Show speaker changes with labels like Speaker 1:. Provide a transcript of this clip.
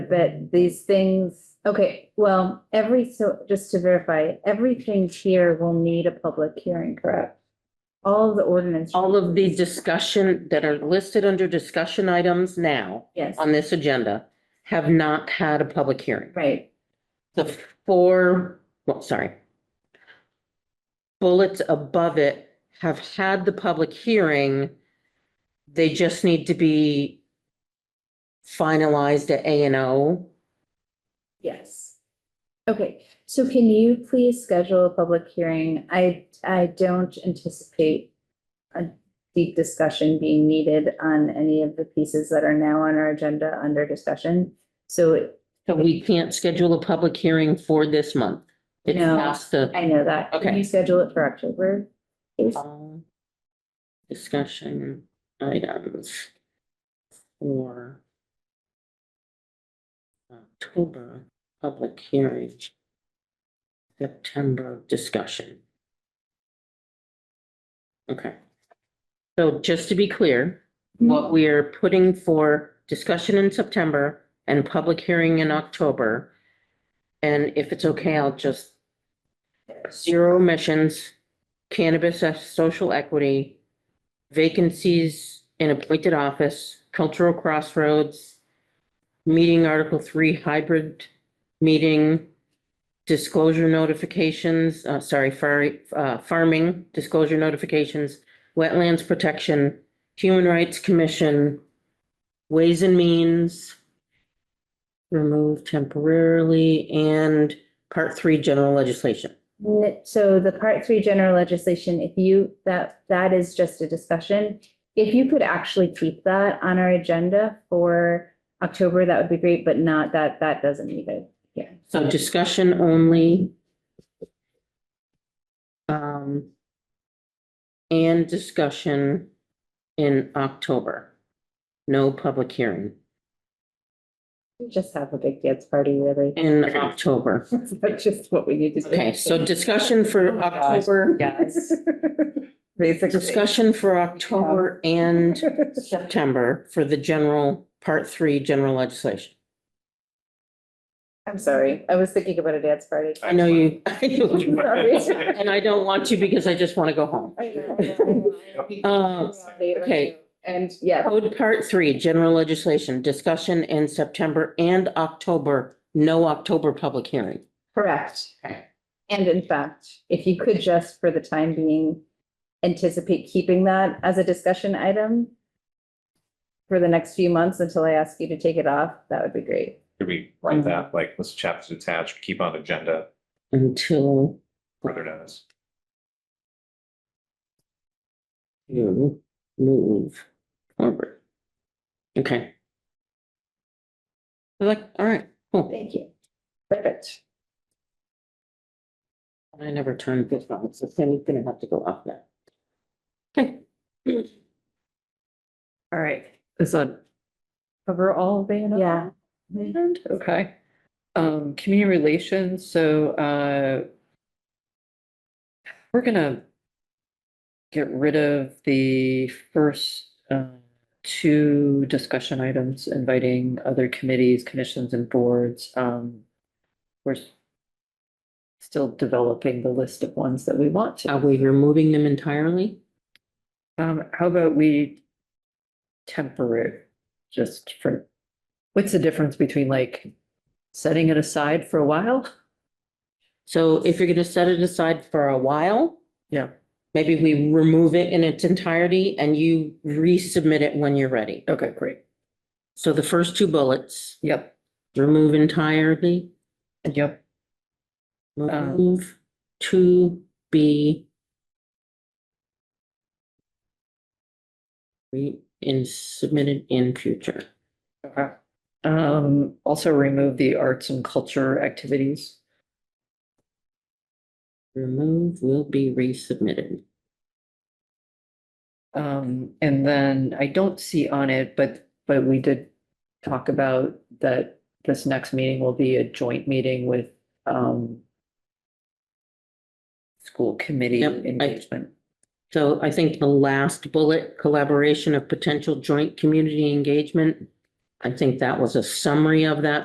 Speaker 1: but these things, okay, well, every, so just to verify, everything here will need a public hearing, correct? All of the ordinance.
Speaker 2: All of the discussion that are listed under discussion items now
Speaker 1: Yes,
Speaker 2: on this agenda have not had a public hearing.
Speaker 1: right,
Speaker 2: The four, well, sorry. Bullets above it have had the public hearing. They just need to be finalized at A and O.
Speaker 1: yes. Okay, so can you please schedule a public hearing? I, I don't anticipate a deep discussion being needed on any of the pieces that are now on our agenda under discussion. So
Speaker 2: So we can't schedule a public hearing for this month. It
Speaker 1: No.
Speaker 2: has to.
Speaker 1: I know that. Can
Speaker 2: Okay.
Speaker 1: you schedule it for October? please?
Speaker 2: Um, Discussion items for October public hearing, September discussion. Okay. So just to be clear, what we are putting for discussion in September and public hearing in October. And if it's okay, I'll just zero emissions, cannabis as social equity, vacancies in appointed office, cultural crossroads, meeting Article Three hybrid meeting, disclosure notifications, uh, sorry, far, uh, farming, disclosure notifications, wetlands protection, Human Rights Commission, Ways and Means, remove temporarily, and Part Three, general legislation.
Speaker 1: N- So the part three general legislation, if you, that, that is just a discussion. If you could actually keep that on our agenda for October, that would be great, but not that, that doesn't need it. Yeah.
Speaker 2: So discussion only. Um, and discussion in October. No public hearing
Speaker 1: Just have a big dance party, really.
Speaker 2: in October.
Speaker 1: That's just what we need to do.
Speaker 2: Okay, so discussion for October,
Speaker 3: Yes.
Speaker 1: Basically.
Speaker 2: discussion for October and September for the general, part three, general legislation.
Speaker 1: I'm sorry. I was thinking about a dance party.
Speaker 2: I know you, I know you-
Speaker 1: Sorry.
Speaker 2: and I don't want to because I just want to go home. Uh, okay.
Speaker 1: And yeah,
Speaker 2: Code Part Three, General Legislation, discussion in September and October, no October public hearing.
Speaker 1: Correct.
Speaker 2: Okay.
Speaker 1: And in fact, if you could just for the time being anticipate keeping that as a discussion item for the next few months until I ask you to take it off, that would be great.
Speaker 3: Could we write that, like, this chapter's attached, keep on agenda
Speaker 2: Until
Speaker 3: further notice?
Speaker 2: you move forward. Okay. Like, all right, cool.
Speaker 1: Thank you. Perfect.
Speaker 2: I never turned this on, so Sammy's gonna have to go off that. Okay.
Speaker 4: All right, is that cover all of A and O?
Speaker 1: Yeah.
Speaker 4: And, okay. Um, community relations, so, uh, we're gonna get rid of the first, uh, two discussion items, inviting other committees, commissions and boards. Um, we're s- still developing the list of ones that we want to.
Speaker 2: Are Uh, we removing them entirely?
Speaker 4: Um, how about we temper it just for, what's the difference between like setting it aside for a while?
Speaker 2: So if you're gonna set it aside for a while.
Speaker 4: Yeah.
Speaker 2: Maybe we remove it in its entirety and you resubmit it when you're ready.
Speaker 4: Okay, great.
Speaker 2: So the first two bullets,
Speaker 4: Yep,
Speaker 2: remove entirely,
Speaker 4: yep, Um,
Speaker 2: remove to be re, in, submitted in future.
Speaker 4: okay. Um, also remove the arts and culture activities.
Speaker 2: Remove will be resubmitted.
Speaker 4: Um, and then I don't see on it, but, but we did talk about that this next meeting will be a joint meeting with, um, school committee
Speaker 2: Yep, I-
Speaker 4: engagement.
Speaker 2: So I think the last bullet, collaboration of potential joint community engagement. I think that was a summary of that